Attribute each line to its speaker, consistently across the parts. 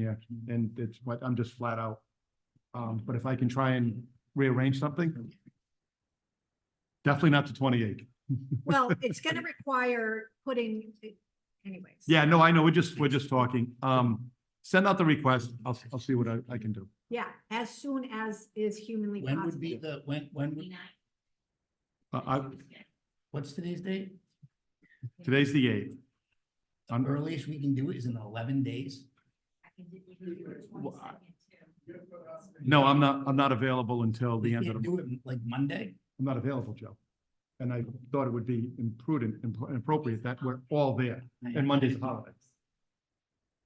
Speaker 1: Yeah, and it's what, I'm just flat out. Um, but if I can try and rearrange something. Definitely not to twenty-eight.
Speaker 2: Well, it's gonna require putting, anyways.
Speaker 1: Yeah, no, I know, we're just, we're just talking. Um, send out the request. I'll, I'll see what I, I can do.
Speaker 2: Yeah, as soon as is humanly
Speaker 3: When would be
Speaker 2: possible.
Speaker 3: the, when, when, would-
Speaker 1: Uh, I,
Speaker 3: what's today's date?
Speaker 1: today's the eighth.
Speaker 3: The earliest we can do it is in eleven days.
Speaker 1: Well, I- No, I'm not, I'm not available until the
Speaker 3: We
Speaker 1: end of the,
Speaker 3: can't do it like Monday.
Speaker 1: I'm not available, Joe. And I thought it would be imprudent, and inappropriate that we're all there and Monday's a holiday.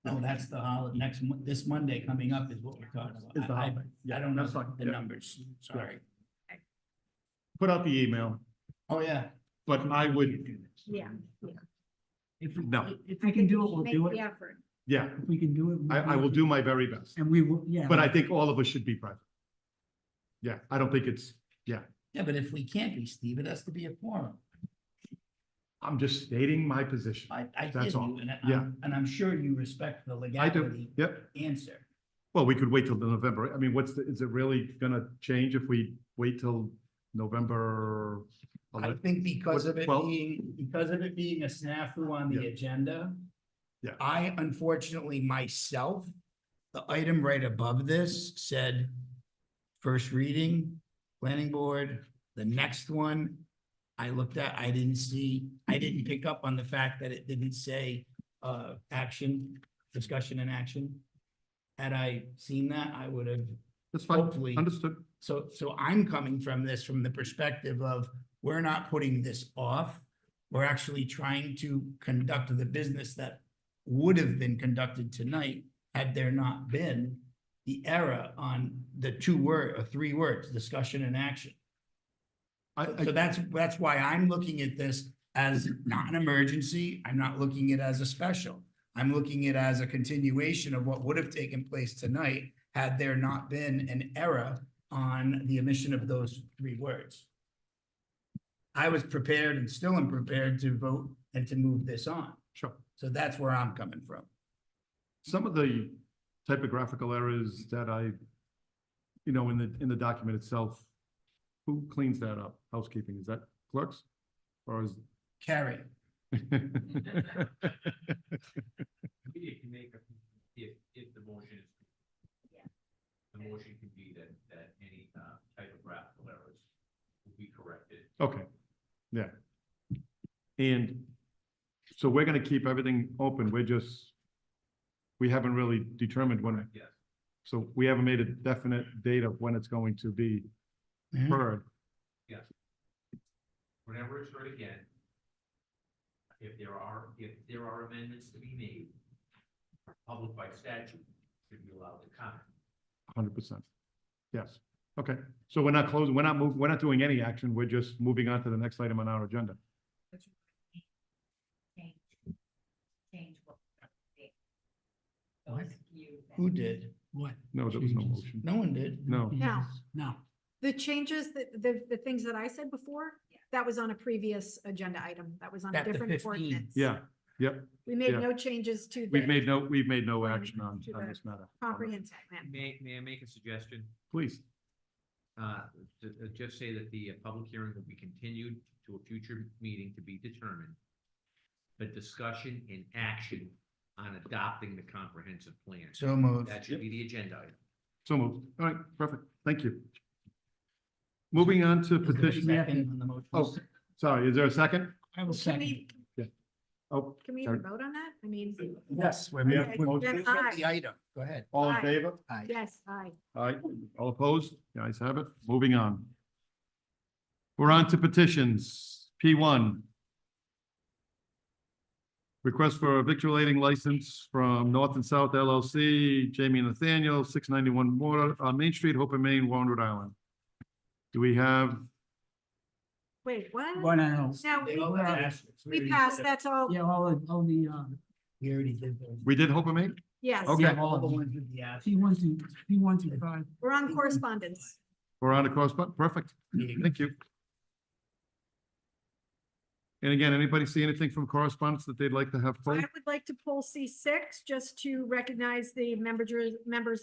Speaker 3: No, that's the holiday, next, Mon- this Monday coming up is what we're talking about.
Speaker 1: Is the
Speaker 3: I- I-
Speaker 1: holiday. Yeah,
Speaker 3: I don't know
Speaker 1: that's fine.
Speaker 3: the
Speaker 1: Yeah.
Speaker 3: numbers, sorry.
Speaker 1: Put out the email,
Speaker 3: Oh, yeah.
Speaker 1: but I would,
Speaker 2: Yeah.
Speaker 4: If we,
Speaker 1: No.
Speaker 4: if we can do it, we'll
Speaker 2: Make
Speaker 4: do
Speaker 2: the
Speaker 4: it.
Speaker 2: effort.
Speaker 1: yeah,
Speaker 4: If we can do it.
Speaker 1: I, I will do my very best.
Speaker 4: And we will, yeah.
Speaker 1: But I think all of us should be present. Yeah, I don't think it's,
Speaker 3: Yeah, but if we can't be, Steve, it has to be a forum.
Speaker 1: I'm just stating my position.
Speaker 3: I, I
Speaker 1: That's
Speaker 3: did
Speaker 1: all.
Speaker 3: you, and I-
Speaker 1: Yeah.
Speaker 3: I'm, and I'm sure you respect the
Speaker 1: I do,
Speaker 3: legality
Speaker 1: yep.
Speaker 3: answer.
Speaker 1: Well, we could wait till the November. I mean, what's the, is it really gonna change if we wait till November?
Speaker 3: I
Speaker 1: 11th?
Speaker 3: think because of it
Speaker 1: Well-
Speaker 3: being, because of it being a snafu on the
Speaker 1: Yeah.
Speaker 3: agenda.
Speaker 1: Yeah.
Speaker 3: I unfortunately myself, the item right above this said first reading, planning board, the next one. I looked at, I didn't see, I didn't pick up on the fact that it didn't say uh action, discussion and action. Had I seen that, I would have
Speaker 1: That's fine,
Speaker 3: hopefully.
Speaker 1: understood.
Speaker 3: So, so I'm coming from this from the perspective of, we're not putting this off. We're actually trying to conduct the business that would have been conducted tonight had there not been the error on the two word, or three words, discussion and action.
Speaker 1: I,
Speaker 3: So
Speaker 1: I,
Speaker 3: that's, that's why I'm looking at this as not an emergency. I'm not looking at it as a special. I'm looking at it as a continuation of what would have taken place tonight had there not been an error on the omission of those three words. I was prepared and still am prepared to vote and to move this on.
Speaker 1: sure.
Speaker 3: So that's where I'm coming from.
Speaker 1: Some of the typographical errors that I, you know, in the, in the document itself, who cleans that up? Housekeeping, is that clerks? Or is?
Speaker 3: Carrie,
Speaker 5: We can make, a- if, if the motion is.
Speaker 2: Yeah.
Speaker 5: The motion could be that, that any uh, typographical errors will be corrected.
Speaker 1: Okay, yeah. And so we're gonna keep everything open, we're just, we haven't really determined when.
Speaker 5: Yes.
Speaker 1: So we haven't made a definite date of when it's going to be
Speaker 3: Mhm.
Speaker 1: heard.
Speaker 5: Whenever it's heard again, if there are, if there are amendments to be made, the public by statute should be allowed to comment.
Speaker 1: Hundred percent. Yes, okay, so we're not closing, we're not moving, we're not doing any action, we're just moving on to the next item on our agenda.
Speaker 6: change, change what. they-
Speaker 3: What?
Speaker 6: those of you that-
Speaker 3: who did?
Speaker 4: What?
Speaker 1: No, there was no
Speaker 4: Changes.
Speaker 1: motion.
Speaker 3: No one did.
Speaker 1: No,
Speaker 2: No.
Speaker 4: No.
Speaker 2: The changes, that the, the things that I said before,
Speaker 6: Yeah.
Speaker 2: that was on a previous agenda item. That was on a
Speaker 3: At the
Speaker 2: different
Speaker 3: 15.
Speaker 2: ordinance.
Speaker 1: yeah,
Speaker 2: We
Speaker 1: yeah.
Speaker 2: made no changes to
Speaker 1: we've
Speaker 2: the
Speaker 1: made no, we've made no action on, on this matter.
Speaker 2: comprehensive plan.
Speaker 5: May, may I make a suggestion?
Speaker 1: Please,
Speaker 5: Uh, to, uh, just say that the uh, public hearing will be continued to a future meeting to be determined. The discussion and action on adopting the comprehensive plan.
Speaker 3: So moved.
Speaker 5: That should be the agenda item.
Speaker 1: so moved, all right, perfect, thank you. Moving on to
Speaker 3: Is there a
Speaker 1: petition.
Speaker 3: second on the motion?
Speaker 1: Oh, sorry, is there a second?
Speaker 4: I will
Speaker 2: Can
Speaker 4: second.
Speaker 2: we,
Speaker 1: Oh,
Speaker 2: can we even vote on that? I mean,
Speaker 3: Yes, we're.
Speaker 1: Yeah.
Speaker 3: we're- we're-
Speaker 2: Then aye.
Speaker 3: The item, go ahead.
Speaker 1: all in
Speaker 2: Aye.
Speaker 1: favor?
Speaker 3: Aye.
Speaker 2: yes, aye.
Speaker 1: Aye. All opposed? The ayes have it. Moving on. We're on to petitions. P one. Request for a victualling license from North and South LLC, Jamie Nathaniel, six ninety-one Water, uh, Main Street, Hope in Maine, Warren, Rhode Island. Do we have,
Speaker 2: Wait, what?
Speaker 4: One and all.
Speaker 2: Now,
Speaker 3: They all have
Speaker 2: we-
Speaker 3: asterisks.
Speaker 2: we
Speaker 3: already
Speaker 2: passed,
Speaker 3: did
Speaker 2: that's all.
Speaker 4: Yeah, all, of- all the, um,
Speaker 3: We already did those.
Speaker 1: we did Hope in Maine?
Speaker 2: Yes,
Speaker 1: Okay.
Speaker 3: uh, Yeah, all the ones with the asterisks.
Speaker 4: P one through, P one through five.
Speaker 2: we're on correspondence.
Speaker 1: We're on a cross, perfect.
Speaker 3: Yeah.
Speaker 1: Thank you. And again, anybody see anything from correspondence that they'd like to have
Speaker 2: I
Speaker 1: pulled?
Speaker 2: would like to pull C six just to recognize the members, members of